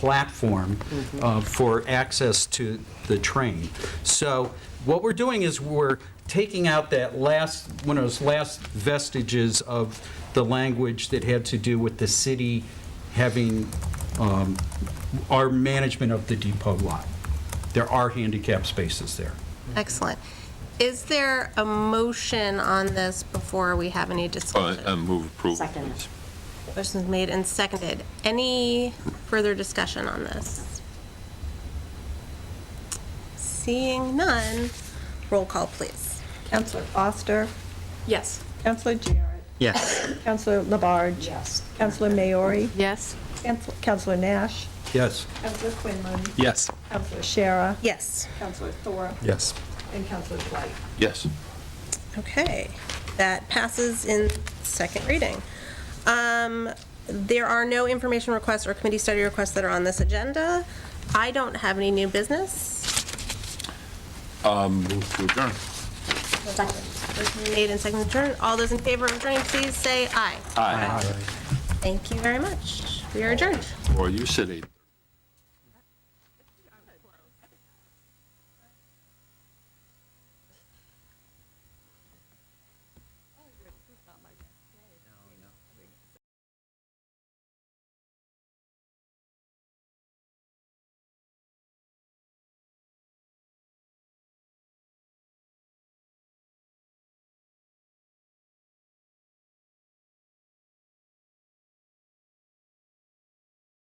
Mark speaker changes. Speaker 1: platform uh, for access to the train. So what we're doing is we're taking out that last, one of those last vestiges of the language that had to do with the city having um, our management of the depot lot. There are handicap spaces there.
Speaker 2: Excellent. Is there a motion on this before we have any discussion?
Speaker 3: Oh, uh, move approval,
Speaker 4: Second.
Speaker 3: please.
Speaker 2: Motion's made and seconded. Any further discussion on this? Seeing none, roll call, please.
Speaker 5: Counselor Foster,
Speaker 2: Yes.
Speaker 5: Counselor Jarrett,
Speaker 1: Yes.
Speaker 5: Counselor Labarge.
Speaker 4: Yes.
Speaker 5: Counselor Maori,
Speaker 6: Yes.
Speaker 5: Counsel- Counselor Nash,
Speaker 1: Yes.
Speaker 5: Counselor Quinlan,
Speaker 3: Yes.
Speaker 5: Counselor Shara,
Speaker 2: Yes.
Speaker 5: Counselor Thor,
Speaker 3: Yes.
Speaker 5: and Counselor Dwight.
Speaker 3: Yes.
Speaker 2: Okay, that passes in second reading. Um, There are no information requests or committee study requests that are on this agenda. I don't have any new business.
Speaker 3: Move to adjourn.
Speaker 2: Motion Made and seconded to adjourn. All those in favor of adjourning, please say aye.
Speaker 3: Aye.
Speaker 2: Thank you very much. We are adjourned.
Speaker 3: Or you said eight.